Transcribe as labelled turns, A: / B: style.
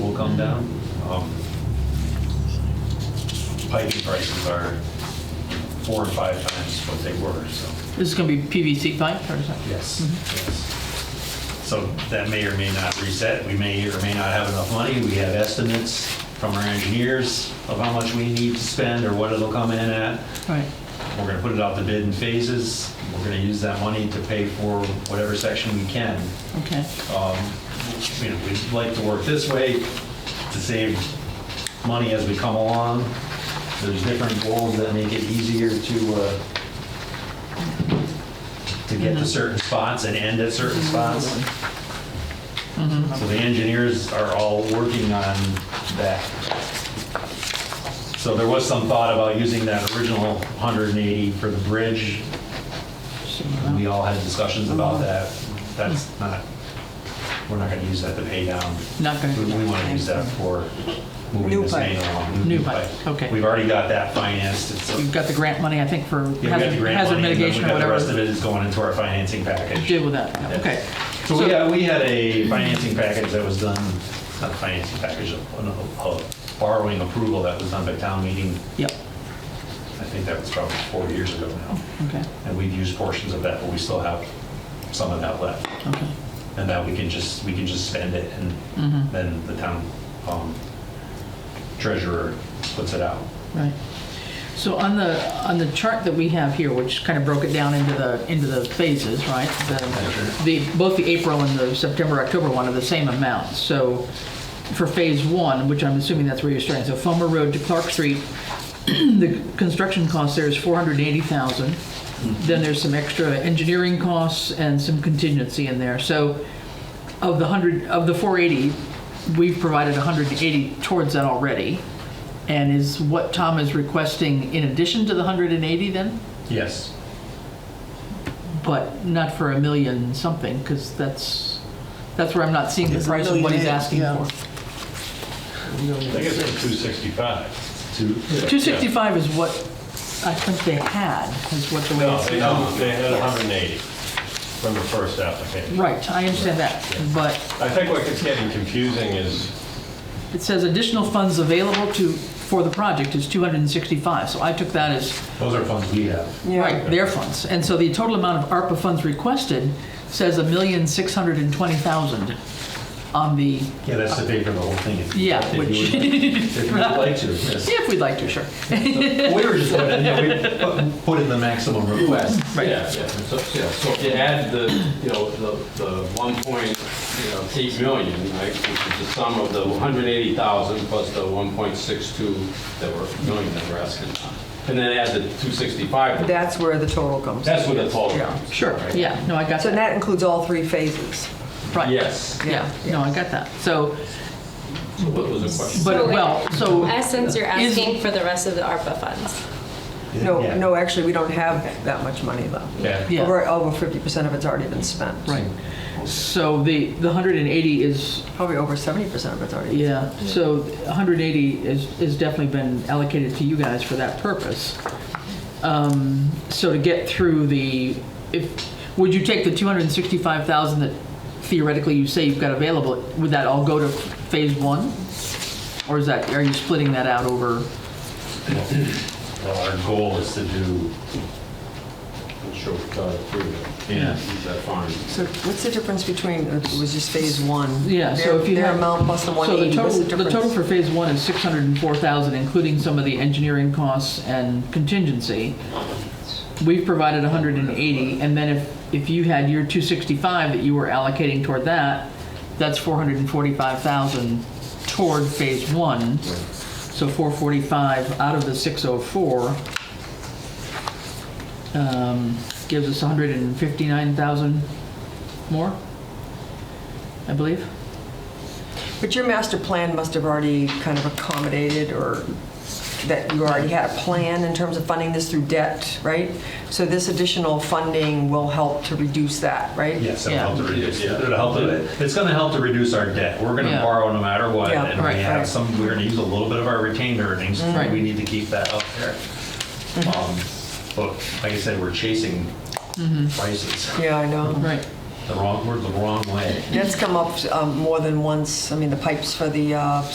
A: gone down?
B: Um, Piping prices are four or five times what they were, so.
C: This is going to be PVC pipe or something?
B: Yes. So that may or may not reset. We may or may not have enough money. We have estimates from our engineers of how much we need to spend or what it'll come in at.
C: Right.
B: We're gonna put it out the bid in phases. We're gonna use that money to pay for whatever section we can.
C: Okay.
B: Um, you know, We'd like to work this way to save money as we come along. There's different goals that make it easier to, uh, to get to certain spots and end at certain spots. So the engineers are all working on that. So there was some thought about using that original 180 for the bridge. We all had discussions about that. That's not, we're not gonna use that to pay down.
C: Not gonna-
B: We we wanna use that for moving
D: New
B: this main
D: pipe.
B: along.
C: New pipe, okay.
B: We've already got that financed. It's-
C: You've got the grant money, I think, for
B: yeah, we got the
C: hazard
B: grant
C: hazard
B: money, and then
C: mitigation or
B: We've got the rest of
C: whatever.
B: it is going into our financing package.
C: Deal with that, yeah, okay.
B: So we had, we had a financing package that was done, not a financing package, a- a a borrowing approval that was done by town meeting.
C: Yep,
B: I think that was probably four years ago now.
C: okay,
B: And we've used portions of that, but we still have some of that left.
C: okay.
B: And that we can just, we can just spend it and
C: Mhm.
B: then the town um, treasurer puts it out.
C: Right. So on the, on the chart that we have here, which kind of broke it down into the, into the phases, right? The- The, both the April and the September, October one are the same amount. So for phase one, which I'm assuming that's where you're starting, so Fulmer Road to Clark Street, the construction cost there is 480,000. Then there's some extra engineering costs and some contingency in there. So of the 100, of the 480, we've provided 180 towards that already. And is what Tom is requesting in addition to the 180 then?
B: Yes.
C: But not for a million something, because that's, that's where I'm not seeing the
D: It's a
C: price of what he's
D: million eight,
C: asking
D: yeah.
C: for.
E: I think it's like 265.
B: Two.
C: 265 is what I think they had, is what the way
E: No,
C: it's.
E: they don't, they had 180 from the first application.
C: Right, I understand that, but
E: I think what gets getting confusing is,
C: it says additional funds available to, for the project is 265, so I took that as,
B: Those are funds we have.
C: right, their funds. And so the total amount of ARPA funds requested says a million six hundred and twenty thousand on the,
B: Yeah, that's the pay for the whole thing. if-
C: yeah,
B: if you
C: which,
B: would-
C: yeah,
B: If you would like to, yes.
C: if we'd like to, sure.
B: We were just, putting- yeah, we put- put in the maximum request.
C: Right.
F: Yeah, yeah, so, yeah, so if you add the, you know, the, the one point, you know, eight million, right, which is the sum of the one hundred eighty thousand plus the one point six two that were, million that we're asking, and then add the two sixty-five,
D: That's where the total comes.
F: that's what the total
D: Yeah.
F: comes.
C: Sure,
F: right?
C: yeah, no, I got
D: So
C: that,
D: that includes all three phases.
C: right.
F: Yes,
C: Yeah, no, I got that. So,
F: so what was the question?
C: but,
G: So-
C: well, so.
G: In essence, you're
C: Is-
G: asking for the rest of the ARPA funds.
D: No,
B: Yeah.
D: no, actually, we don't have that much money left.
B: Yeah.
C: Yeah.
D: Over over 50% of it's already been spent.
C: Right. So the, the 180 is,
D: Probably over 70% of it's already. been
C: yeah, so 180 is, is definitely been allocated to you guys for that purpose. Um, So to get through the, if, would you take the 265,000 that theoretically you say you've got available, would that all go to phase one? Or is that, are you splitting that out over,
B: Well, our goal is to do,
F: I'm sure we got it through.
B: Yeah.
F: uh, Is that fine?
D: So what's the difference between, uh, it was just phase one?
C: Yeah, so
D: Their-
C: if you
D: Their
C: have-
D: amount plus
C: So
D: the
C: the
D: 180, what's
C: total, the
D: the difference?
C: total for phase one is 604,000, including some of the engineering costs and contingency. We've provided 180, and then if, if you had your 265 that you were allocating toward that, that's 445,000 toward phase one. So 445 out of the 604 um, gives us 159,000 more, I believe.
D: But your master plan must have already kind of accommodated, or that you already had a plan in terms of funding this through debt, right? So this additional funding will help to reduce that, right?
B: yes, it'll
C: Yeah.
B: help to reduce, it'll help to, it's gonna help to reduce our debt. We're gonna
C: Yeah.
B: borrow no matter what,
D: Yeah,
B: and we
C: right,
B: have
D: right.
B: some, we're gonna use a little bit of our retained earnings.
C: Right. Mm-hmm.
B: We need to keep that up there. Um, But like I said, we're chasing
C: Mm-hmm.
B: prices
D: Yeah, I know.
C: Right.
B: the wrong, we're the wrong way.
D: That's come up um, more than once. I mean, the pipes for the uh,